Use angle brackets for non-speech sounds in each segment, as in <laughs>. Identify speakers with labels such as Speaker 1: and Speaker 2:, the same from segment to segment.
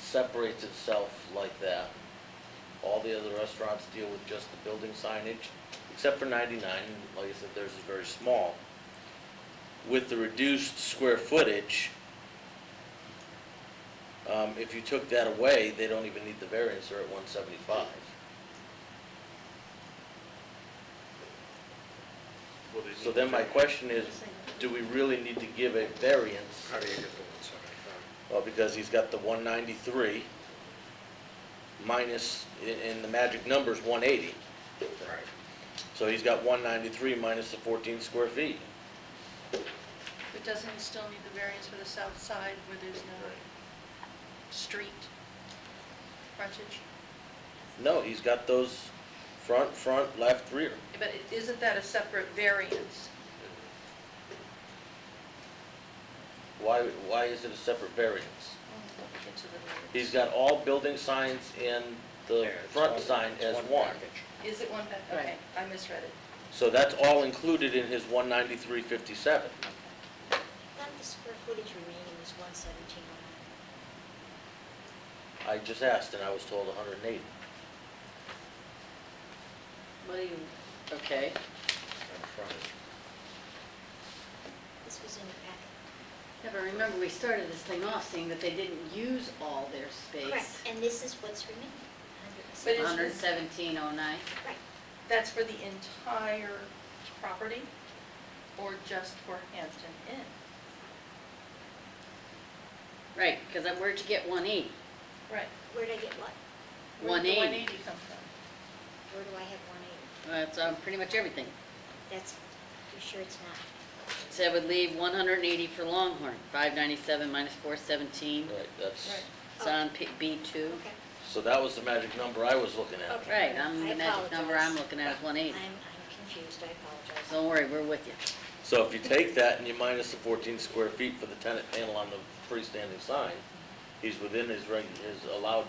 Speaker 1: separates itself like that. All the other restaurants deal with just the building signage, except for ninety-nine, like I said, theirs is very small. With the reduced square footage, um, if you took that away, they don't even need the variance, they're at one seventy-five.
Speaker 2: Well, they
Speaker 1: So
Speaker 2: need
Speaker 1: then my
Speaker 2: to-
Speaker 1: question is, do we really need to give a variance?
Speaker 2: How do you get the one seventy-five?
Speaker 1: Well, because he's got the one ninety-three minus, and- and the magic number's one eighty.
Speaker 2: Right.
Speaker 1: So he's got one ninety-three minus the fourteen square feet.
Speaker 3: But doesn't he still need the variance for the south side where there's no street frontage?
Speaker 1: No, he's got those front, front, left, rear.
Speaker 3: But i- isn't that a separate variance?
Speaker 1: Why, why is it a separate variance?
Speaker 3: Get to the variance.
Speaker 1: He's got all building signs and the
Speaker 2: There, it's
Speaker 1: front
Speaker 2: one-
Speaker 1: sign
Speaker 2: it's
Speaker 1: as one.
Speaker 2: package.
Speaker 3: Is it one, pa- okay, I misread it.
Speaker 1: So that's all included in his one ninety-three fifty-seven.
Speaker 4: Not the square footage remaining is one seventeen oh
Speaker 1: I
Speaker 4: nine.
Speaker 1: just asked and I was told hundred and eighty.
Speaker 5: What do you, okay,
Speaker 2: And frontage.
Speaker 4: This was in the packet.
Speaker 5: never remember, we started this thing off saying that they didn't use all their
Speaker 4: Correct,
Speaker 5: space.
Speaker 4: and this is what's remaining, hundred and
Speaker 3: But it's-
Speaker 5: Hundred
Speaker 4: seventeen.
Speaker 5: seventeen oh nine,
Speaker 4: Right,
Speaker 3: That's for the entire property or just for Hampton Inn?
Speaker 5: right, because where'd you get one eighty?
Speaker 3: Right.
Speaker 4: where did I get what?
Speaker 3: Where did the
Speaker 5: 180.
Speaker 3: 180 come from?
Speaker 4: Where do I have one eighty?
Speaker 5: That's on pretty much everything.
Speaker 4: That's, you're sure it's not?
Speaker 5: So that would leave one hundred and eighty for Longhorn, five ninety-seven minus four seventeen,
Speaker 1: Right, that's,
Speaker 3: Right.
Speaker 4: Oh.
Speaker 5: it's on P- B two.
Speaker 4: Okay,
Speaker 1: so that was the magic number I was looking at.
Speaker 4: Okay.
Speaker 5: Right, I'm,
Speaker 4: I
Speaker 5: the magic number I'm
Speaker 4: apologize.
Speaker 5: looking at is one
Speaker 4: I'm,
Speaker 5: eighty.
Speaker 4: I'm confused, I apologize.
Speaker 5: Don't worry, we're with you.
Speaker 1: So if you take that and you minus the fourteen square feet for the tenant panel on the freestanding sign, he's within his reg, his allowed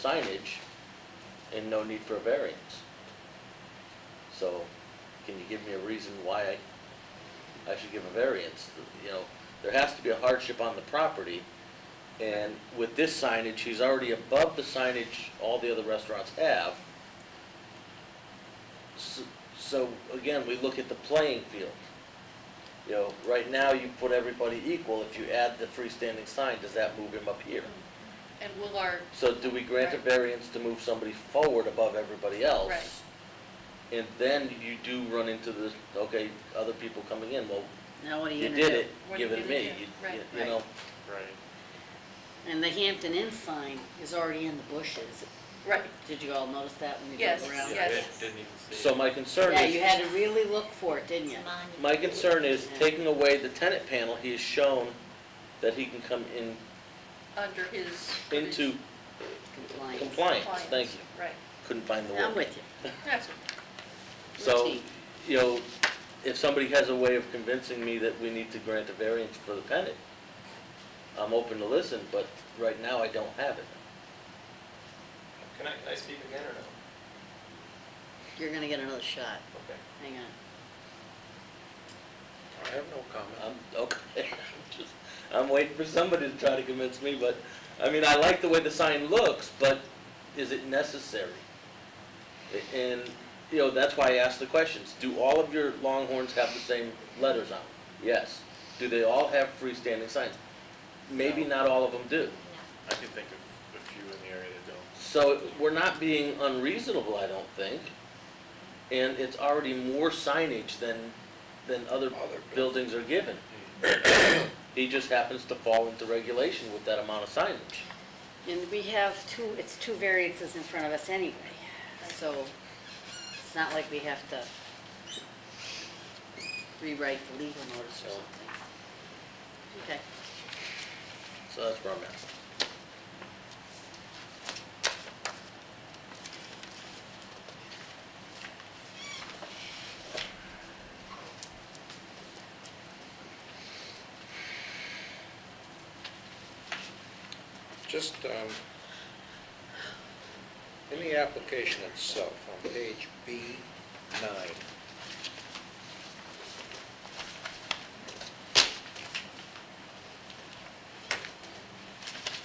Speaker 1: signage and no need for a variance. So, can you give me a reason why I, I should give a variance? You know, there has to be a hardship on the property. And with this signage, he's already above the signage all the other restaurants have. S- So, again, we look at the playing field. You know, right now, you put everybody equal, if you add the freestanding sign, does that move him up here?
Speaker 5: Mm-hmm.
Speaker 3: And will our,
Speaker 1: So do we grant a
Speaker 3: Right.
Speaker 1: variance to move somebody forward above everybody else?
Speaker 3: Right.
Speaker 1: And then you do run into the, okay, other people coming in, well,
Speaker 5: Now what are you
Speaker 1: you
Speaker 5: gonna do?
Speaker 1: did it,
Speaker 3: What are
Speaker 1: give
Speaker 3: you
Speaker 1: it to
Speaker 3: gonna
Speaker 1: me,
Speaker 3: do?
Speaker 1: you,
Speaker 3: Right.
Speaker 1: you- you know?
Speaker 2: Right.
Speaker 5: And the Hampton Inn sign is already in the bushes.
Speaker 3: right,
Speaker 5: Did you all notice that when you
Speaker 3: Yes,
Speaker 5: drove around?
Speaker 2: Yeah, they
Speaker 3: Yes.
Speaker 2: Didn't even see.
Speaker 1: So my concern
Speaker 5: Yeah, you
Speaker 1: is,
Speaker 5: had to really look for it, didn't
Speaker 4: It's
Speaker 5: you?
Speaker 4: a monument.
Speaker 1: my concern is
Speaker 5: Yeah.
Speaker 1: taking away the tenant panel, he has shown that he can come in,
Speaker 3: under his.
Speaker 1: into
Speaker 5: Compliance.
Speaker 1: compliance, thank you.
Speaker 3: Right,
Speaker 1: Couldn't find the word.
Speaker 5: I'm with you.
Speaker 3: that's what
Speaker 1: So,
Speaker 5: Routine.
Speaker 1: you know, if somebody has a way of convincing me that we need to grant a variance for the tenant, I'm open to listen, but right now I don't have it.
Speaker 6: Can I, can I speak again or no?
Speaker 5: You're gonna get another shot.
Speaker 6: Okay.
Speaker 5: Hang on.
Speaker 2: I have no comment.
Speaker 1: I'm, okay, <laughs> I'm just, I'm waiting for somebody to try to convince me, but, I mean, I like the way the sign looks, but is it necessary? A- And, you know, that's why I asked the questions. Do all of your Longhorns have the same letters on them? Yes. Do they all have freestanding signs? Maybe not all of them do.
Speaker 4: No,
Speaker 2: I can think of a few in the area that don't.
Speaker 1: So we're not being unreasonable, I don't think. And it's already more signage than, than other buildings Mm-hmm. are given. He just happens to fall into regulation with that amount of signage.
Speaker 5: And we have two, it's two variances in front of us anyway, so it's not like we have to rewrite the legal notice or something. Okay.
Speaker 1: So that's where I'm at.
Speaker 2: Just, um, in the application itself, on page B nine,